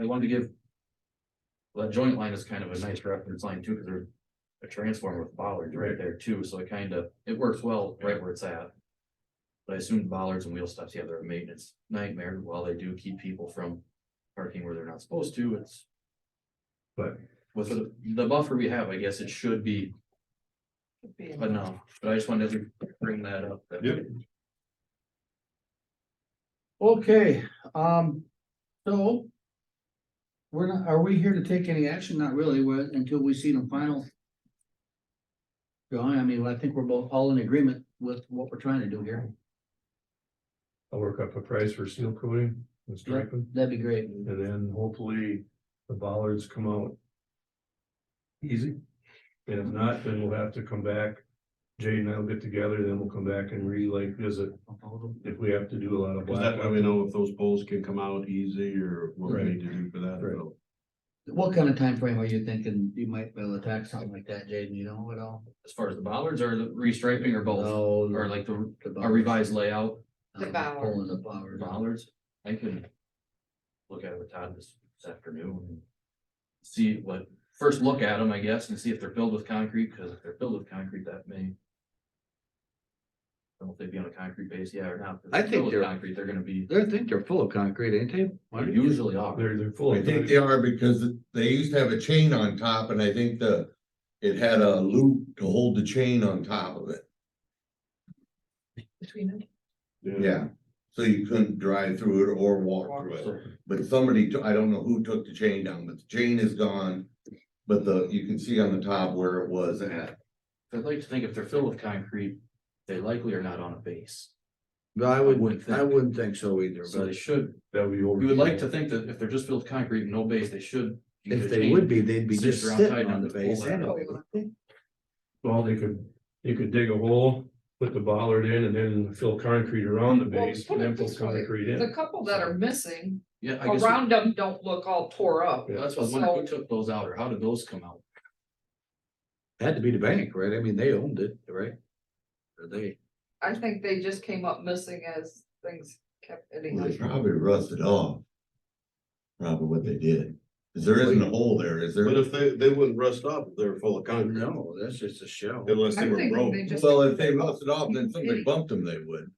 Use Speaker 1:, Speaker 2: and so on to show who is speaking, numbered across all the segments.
Speaker 1: I wanted to give. That joint line is kind of a nice reference line too, because there's a transformer with bollards right there too, so it kind of, it works well right where it's at. But I assume bollards and wheel stops, yeah, they're a maintenance nightmare, while they do keep people from parking where they're not supposed to, it's.
Speaker 2: But-
Speaker 1: With the, the buffer we have, I guess it should be enough, but I just wanted to bring that up. that-
Speaker 2: Yep. Okay, um, so. We're not, are we here to take any action? Not really, we're- until we see the final. Drawing, I mean, I think we're both all in agreement with what we're trying to do here.
Speaker 3: I'll work up a price for seal coating and striping,
Speaker 2: That'd be great.
Speaker 3: and then hopefully the bollards come out. Easy. And if not, then we'll have to come back. Jay and I'll get together, then we'll come back and re-like visit if we have to do a lot of
Speaker 4: Cause that way
Speaker 3: blackout.
Speaker 4: we know if those poles can come out easy or what we
Speaker 3: Right.
Speaker 4: need to do for that.
Speaker 3: Right.
Speaker 4: So,
Speaker 2: What kind of time frame are you thinking you might be able to attack something like that, Jaden? You know at all?
Speaker 1: As far as the bollards or the restriping or both,
Speaker 2: No,
Speaker 1: or like the,
Speaker 2: the
Speaker 1: a revised layout,
Speaker 2: The
Speaker 5: Devour.
Speaker 2: Pulling the power.
Speaker 1: bollards, I can. Look at it with Todd this, this afternoon. and See what, first look at them, I guess, and see if they're filled with concrete, because if they're filled with concrete, that may. I don't know if they'd be on a concrete base, yeah, or not. but if
Speaker 6: I
Speaker 1: they're filled
Speaker 6: think
Speaker 1: with
Speaker 6: they're-
Speaker 1: Concrete, they're gonna be,
Speaker 6: They think they're full of concrete, ain't they?
Speaker 1: they usually are.
Speaker 3: They're, they're full
Speaker 7: I
Speaker 3: of.
Speaker 7: think they are because they used to have a chain on top and I think the, it had a loop to hold the chain on top of it.
Speaker 5: Between them.
Speaker 7: Yeah. So you couldn't drive through it or walk through it.
Speaker 1: So,
Speaker 7: But somebody, took- I don't know who took the chain down, but the chain is gone. But the, you can see on the top where it was at.
Speaker 1: I'd like to think if they're filled with concrete, they likely are not on a base,
Speaker 6: No, I
Speaker 1: wouldn't
Speaker 6: wouldn't, I
Speaker 1: think.
Speaker 6: wouldn't think so either,
Speaker 1: so
Speaker 6: but
Speaker 1: they should,
Speaker 3: That would be.
Speaker 1: we would like to think that if they're just filled with concrete and no base, they should.
Speaker 6: if they would be, they'd be
Speaker 1: Sit
Speaker 6: just
Speaker 1: around tight
Speaker 6: sitting
Speaker 1: on
Speaker 6: on the
Speaker 1: the
Speaker 6: base
Speaker 1: pole.
Speaker 6: anyway.
Speaker 3: Well, they could, you could dig a hole, put the bollard in and then fill concrete around the base
Speaker 5: put
Speaker 3: and
Speaker 5: it
Speaker 3: then fill
Speaker 5: this way,
Speaker 3: concrete in.
Speaker 5: The couple that are missing,
Speaker 1: Yeah, I guess.
Speaker 5: around them don't look all tore up.
Speaker 1: That's what I was wondering, who took those out or how did those come out?
Speaker 6: Had to be the bank, right? I mean, they owned it, right? Or they,
Speaker 5: I think they just came up missing as things kept hitting
Speaker 7: Well,
Speaker 5: them.
Speaker 7: They probably rusted off. Probably what they did. 'Cause there isn't a hole there, is there?
Speaker 4: But if they, they wouldn't rust up, if they're full of concrete
Speaker 6: no, that's just a shell.
Speaker 4: unless they
Speaker 5: I'm
Speaker 4: were
Speaker 5: thinking
Speaker 4: broke.
Speaker 5: they just.
Speaker 7: Well, if they rusted off, then somebody bumped them, they would.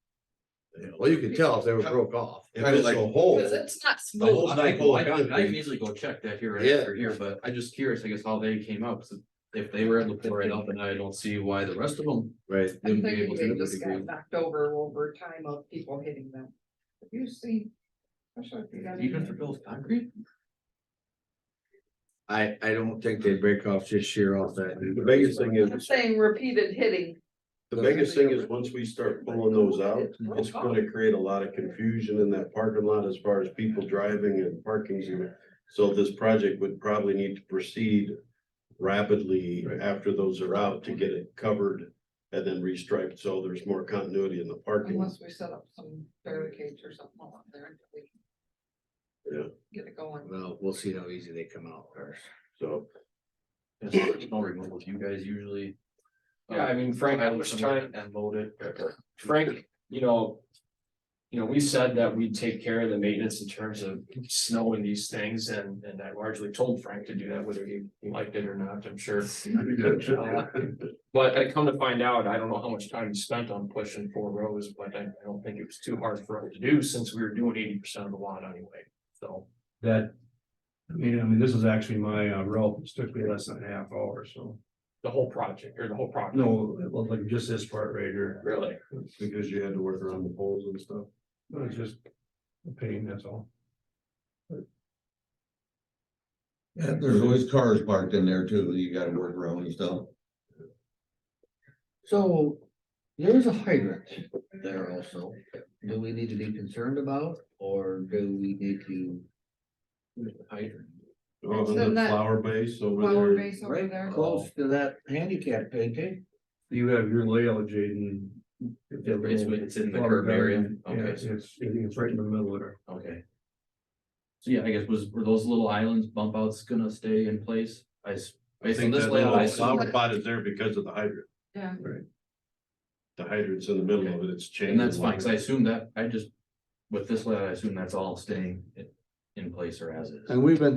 Speaker 6: Well, you could tell if they were broke off.
Speaker 4: If it's a hole,
Speaker 5: Cause it's
Speaker 4: Oh.
Speaker 5: not
Speaker 4: the
Speaker 5: smooth.
Speaker 4: hole's
Speaker 1: I
Speaker 4: not
Speaker 1: can
Speaker 4: full of
Speaker 1: I can
Speaker 4: concrete.
Speaker 1: easily go check that here right
Speaker 6: Yeah.
Speaker 1: after here, but I'm just curious, I guess, how they came out, 'cause if they were able to pull right up, and I don't see why the rest of them
Speaker 6: Right.
Speaker 5: I'm
Speaker 1: wouldn't be able
Speaker 5: thinking
Speaker 1: to.
Speaker 5: they just got
Speaker 1: degree.
Speaker 5: knocked over over time of people hitting them. Have you seen? I'm sure if you got
Speaker 1: Even if
Speaker 5: any-
Speaker 1: they're built with concrete,
Speaker 6: I, I don't think they'd break off just sheer off that.
Speaker 4: The biggest thing
Speaker 5: I'm
Speaker 4: is,
Speaker 5: saying repeated hitting.
Speaker 4: the biggest thing is once we start pulling those out, it's gonna create a lot of confusion in that parking lot as far as people driving and parking. and- So this project would probably need to proceed rapidly
Speaker 3: Right.
Speaker 4: after those are out to get it covered and then restriped, so there's more continuity in the parking.
Speaker 5: Unless we set up some barricades or something along there. until we
Speaker 4: Yeah.
Speaker 5: Get it going.
Speaker 6: Well, we'll see how easy they come out first.
Speaker 4: So
Speaker 1: it's a snow removal, you guys usually. uh,
Speaker 8: Yeah, I mean, Frank, I was trying,
Speaker 1: And load it.
Speaker 8: Frank, you know. You know, we said that we'd take care of the maintenance in terms of snow and these things, and, and I largely told Frank to do that, whether he liked it or not, I'm sure. But I come to find out, I don't know how much time he spent on pushing four rows, but I, I don't think it was too hard for him to do, since we were doing eighty percent of the lot anyway, so.
Speaker 3: that. I mean, I mean, this is actually my uh, route, it took me less than a half hour, so.
Speaker 8: The whole project, or the whole project.
Speaker 3: No, well, like just this part right here,
Speaker 8: Really?
Speaker 4: because you had to work around the poles and stuff.
Speaker 3: it's just a pain, that's all.
Speaker 7: Yeah, there's always cars parked in there too. You gotta work around and stuff.
Speaker 2: So there's a hydrant there also. Do we need to be concerned about or do we need to?
Speaker 4: Oh,
Speaker 5: So
Speaker 4: and the
Speaker 5: that-
Speaker 4: flower base over
Speaker 5: Flower
Speaker 4: there,
Speaker 5: base over there.
Speaker 2: Close to that handicap, ain't they?
Speaker 3: You have your layout, Jaden.
Speaker 1: It's- it's in the curb area.
Speaker 3: Yeah,
Speaker 1: Okay.
Speaker 3: it's, it's right in the middle of there.
Speaker 1: Okay. So yeah, I guess was, were those little islands bump outs gonna stay in place? I, s-
Speaker 4: I
Speaker 1: based on
Speaker 4: think
Speaker 1: this
Speaker 4: that
Speaker 1: layout, I
Speaker 4: little
Speaker 1: assume-
Speaker 4: flower pot is there because of the hydrant.
Speaker 5: Yeah.
Speaker 3: Right.
Speaker 4: The hydrant's in the middle of it, it's changed.
Speaker 1: And that's fine, cause I assume that, I just, with this layout, I assume that's all staying in,
Speaker 9: in place or as is.
Speaker 1: And we've been